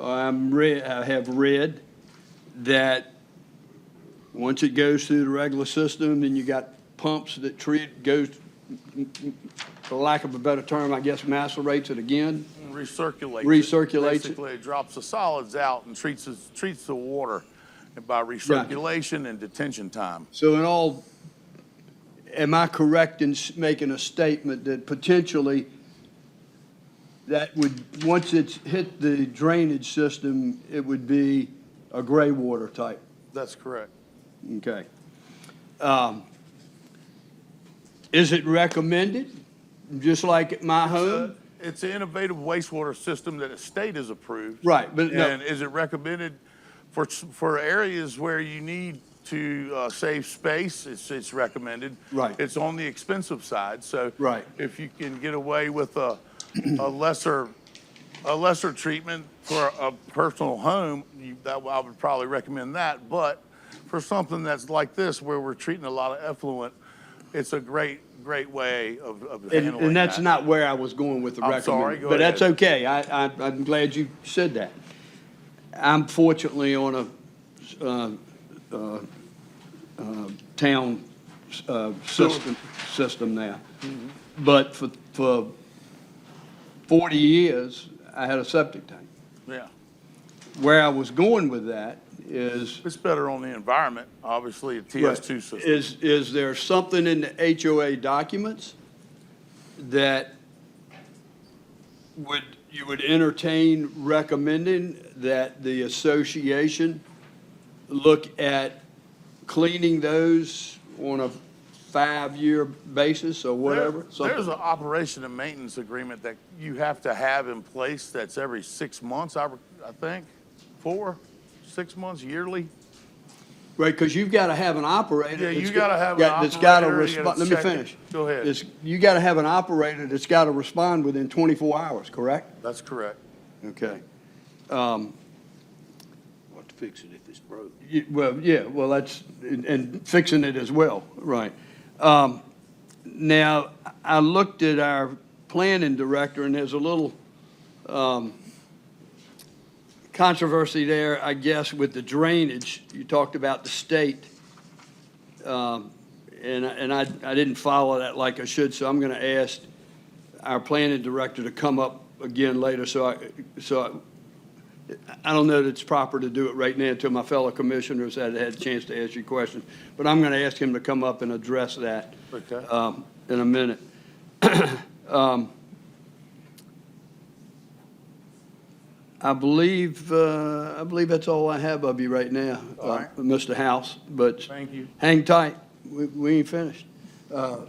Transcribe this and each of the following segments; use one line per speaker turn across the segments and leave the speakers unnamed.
I'm re, I have read that once it goes through the regular system, then you got pumps that treat, goes, for lack of a better term, I guess macerates it again.
recirculates. it.
Recirculates it.
Basically, it drops the solids out and treats, the- treats the water by recirculation and detention time.
So in all, am I correct in s- making a statement that potentially that would, once it's hit the drainage system, it would be a gray water type?
That's correct.
Okay. Um, Is it recommended, just like at my home?
It's an innovative wastewater system that the state has approved.
Right, but no-
And is it recommended for, s- for areas where you need to uh, save space? It's, it's recommended.
Right.
It's on the expensive side, so.
Right.
If you can get away with a, a lesser, a lesser treatment for a personal home, you, that, I would probably recommend that. But for something that's like this, where we're treating a lot of effluent, it's a great, great way of, of handling
And,
that.
and that's not where I was going with the
I'm
recommended.
sorry, go
But that's
ahead.
okay. I, I, I'm glad you said that. I'm fortunately on a, uh, uh, uh, town, uh, system, system now.
Mm-hmm.
But for, for forty years, I had a septic tank.
Yeah.
Where I was going with that is
It's better on the environment, obviously, a
Right.
TS2 system.
Is, is there something in the HOA documents that would, you would entertain recommending that the association look at cleaning those on a five-year basis or whatever?
There-
something?
There's an operation and maintenance agreement that you have to have in place that's every six months, I, re- I think, four, six months yearly.
Right, because you've got to have an operator.
Yeah, you
that's
gotta
got-
have an
got- that's gotta
operator, you gotta
respon- Let me
check it.
finish.
Go ahead.
It's- You got to have an operator that's got to respond within 24 hours, correct?
That's correct.
Okay. Um,
What to fix it if it's broke?
y- Well, yeah, well, that's, and- and fixing it as well, right. Um, Now, I looked at our planning director, and there's a little um, controversy there, I guess, with the drainage. You talked about the state, um, and I- and I I didn't follow that like I should, so I'm going to ask our planning director to come up again later, so I, so I- I don't know that it's proper to do it right now until my fellow commissioners had had a chance to ask you questions, but I'm going to ask him to come up and address that
Okay.
um, in a minute. Um, I believe, uh, I believe that's all I have of you right now,
All
uh,
right.
Mr. House, but.
Thank you.
Hang tight, we we ain't finished. Uh,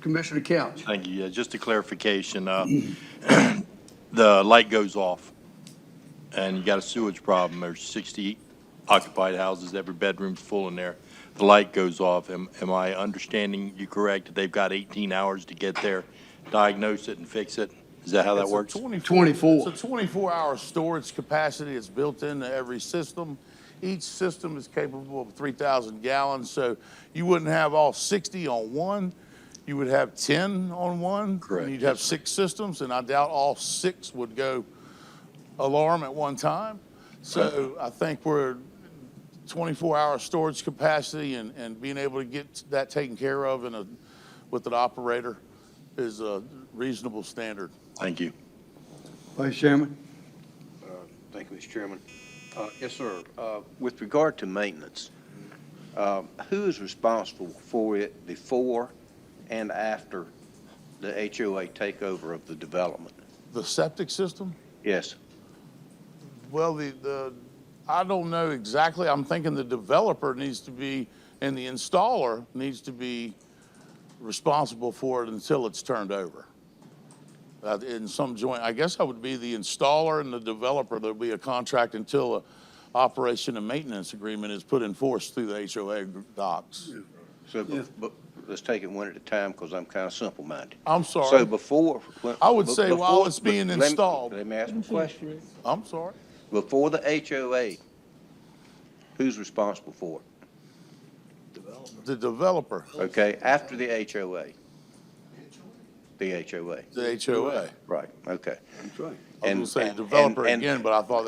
Commissioner Couch.
Thank you. Yeah, just a clarification. uh, The light goes off, and you got a sewage problem. There's 60 occupied houses, every bedroom's full in there. The light goes off. Am am I understanding you correct that they've got 18 hours to get there, diagnose it, and fix it? Is that how that
It's a
works?
24.
It's a 24-hour storage capacity. It's built into every system. Each system is capable of 3,000 gallons, so you wouldn't have all 60 on one. You would have 10 on one.
Correct.
And you'd have six systems, and I doubt all six would go alarm at one time. So I think we're 24-hour storage capacity and, and being able to get that taken care of in a, with an operator is a reasonable standard.
Thank you.
Vice Chairman.
Thank you, Mr. Chairman. Uh, Yes, sir. Uh, With regard to maintenance, um, who is responsible for it before and after the HOA takeover of the development?
The septic system?
Yes,
Well, the, the, I don't know exactly. I'm thinking the developer needs to be, and the installer needs to be responsible for it until it's turned over. Uh, in some joint, I guess I would be the installer and the developer. There'll be a contract until a operation and maintenance agreement is put in force through the HOA docs.
so, be- but let's take it one at a time because I'm kind of simple-minded.
I'm
So
sorry.
before. when-
I would say
before-
while it's being
let me-
installed-
Let me ask a question.
I'm sorry.
Before the HOA, who's responsible for it?
The developer.
Okay, after the HOA? The HOA,
the HOA.
right, okay.
That's right.
I was gonna
And-
say
and-
developer
and-
again, but I thought that